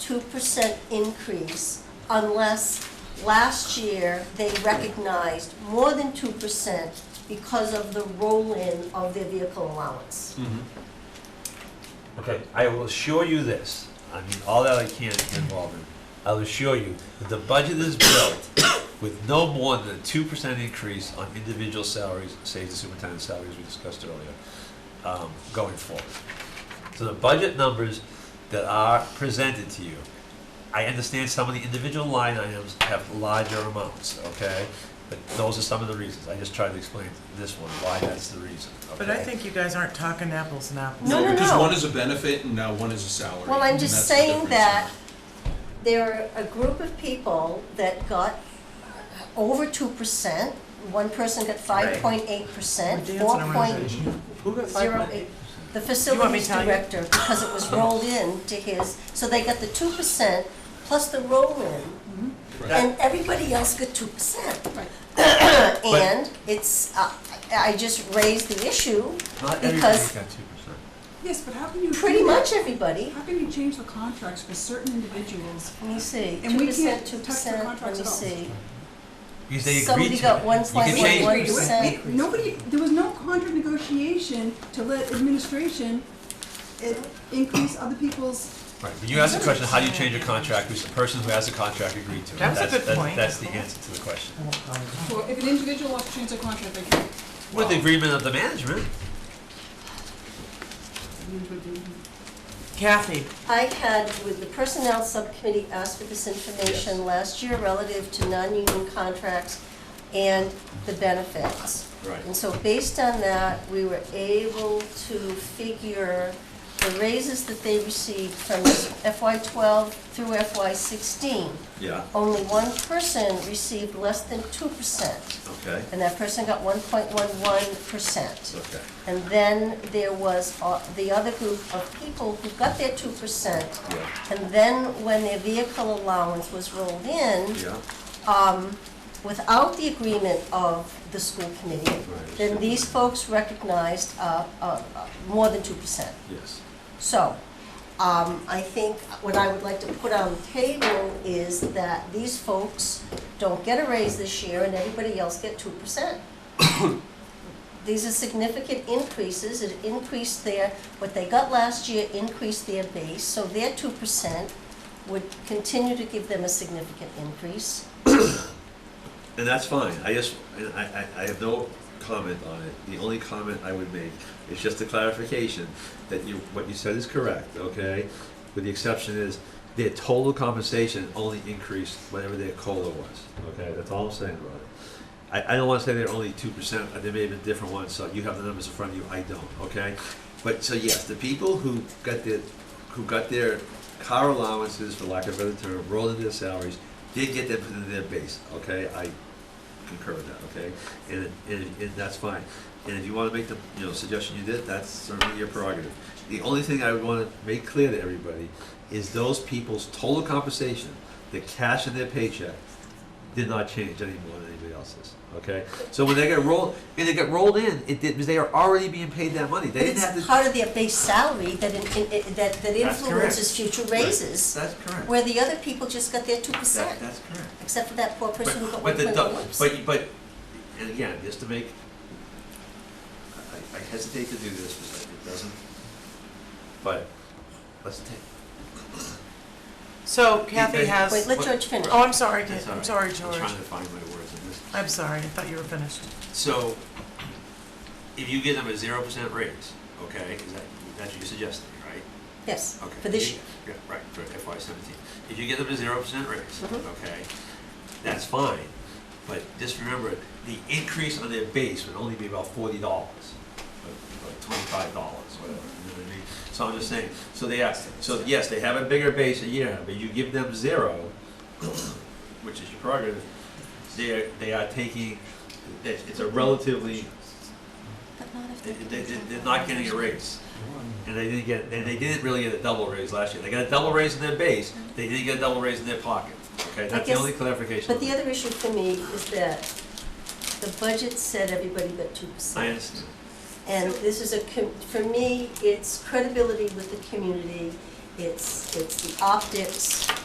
two percent increase unless last year they recognized more than two percent because of the roll-in of their vehicle allowance. Mm-hmm. Okay, I will assure you this, I mean, all that I can get involved in, I'll assure you that the budget is built with no more than a two percent increase on individual salaries, say the superintendent's salary, as we discussed earlier, um, going forward. So the budget numbers that are presented to you, I understand some of the individual line items have larger amounts, okay? But those are some of the reasons, I just tried to explain this one, why that's the reason, okay? But I think you guys aren't talking apples and apples. No, no, Because no. one is a benefit and now one is a salary. Well, I'm and just that's the saying difference. that there are a group of people that got over two percent. One person got five point eight percent, We're dancing four around point it. Who got five zero point eight. eight? The You want me facilities to tell you? director, because it was rolled in to his, so they got the two percent plus the roll-in, Right. and everybody else got two percent. Right. And it's, uh, I I just raised the issue, because Not everybody's got two percent. Yes, but how can you? pretty do that? much everybody, How can you change the contracts for certain individuals? let me see, And two we can't percent, two touch the percent, let contracts me at all. see. Because they Somebody agreed to got it. one You slice can of change one it. percent. It- Nobody, there was no contract negotiation to let administration eh, increase other people's, Right, but you asked the question, how do you change a contract, which the person who has the contract agreed to? it. That's a good that- point. That's the answer to the question. well, if an individual wants to change their contract, they can. With the agreement of the management, Kathy, I had, with the Personnel Subcommittee, asked for this information last year relative to non-union contracts and the benefits. Right. And so based on that, we were able to figure the raises that they received from FY twelve through FY sixteen. yeah, Only one person received less than two percent, okay, and that person got one point one one percent. okay. And then there was uh, the other group of people who got their two percent. Yeah. And then when their vehicle allowance was rolled in, um, without the agreement of the school committee, Right. then these folks recognized uh, uh, uh, more than two percent. yes. So, um, I think what I would like to put on the table is that these folks don't get a raise this year and everybody else get two percent. These are significant increases, it increased their, what they got last year increased their base, so their two percent would continue to give them a significant increase. And that's fine, I just, and I, I, I have no comment on it, the only comment I would make is just a clarification that you, what you said is correct, okay? With the exception is, their total compensation only increased whatever their COLA was, okay, that's all I'm saying about it. I, I don't wanna say they're only two percent, there may have been different ones, so you have the numbers in front of you, I don't, okay? But, so yes, the people who got their, who got their car allowances, for lack of a better term, rolled into their salaries, did get them into their base, okay? I concur with that, okay? And, and, and that's fine. And if you wanna make the, you know, suggestion you did, that's certainly your prerogative. The only thing I would wanna make clear to everybody is those people's total compensation, the cash in their paycheck, did not change any more than anybody else's. Okay, so when they got rolled, and they got rolled in, it did because they are already being paid that money. They But didn't it's have to. part of their base salary that, in- in- in- that that That's correct. influences future raises, That's correct. where the other people just got their two percent. That- that's correct. except for that poor person who got But one the point dou- oh one percent. But, but, and again, just to make, I- I I hesitate to do this because it doesn't, but let's take, so Kathy Wait, has. Wait, let George finish. Oh, I'm sorry, that's Kate. all I'm right. sorry, I'm George. trying to find my words in this. I'm sorry, I thought you were finished. So, if you give them a zero percent raise, okay, is that, that's what you're suggesting, right? Yes, Okay. for this You- year. yeah, Right, for FY seventeen. If you get them a zero percent raise, Mhm. okay, that's fine. But just remember, the increase on their base would only be about forty dollars, or twenty-five dollars, whatever, you know what I mean? So I'm just saying, so they asked, so yes, they have a bigger base a year, but you give them zero, which is your prerogative, they're, they are taking, it's it's a relatively But not if they, they, they're- they're not getting a raise. And they didn't get, and they didn't really get a double raise last year. They got a double raise in their base, they didn't get a double raise in their pocket. Okay, that's the guess- only clarification. But the other issue for me is that the budget said everybody got two I percent. understand. And this is a, com- for me, it's credibility with the community. it's, it's the optics,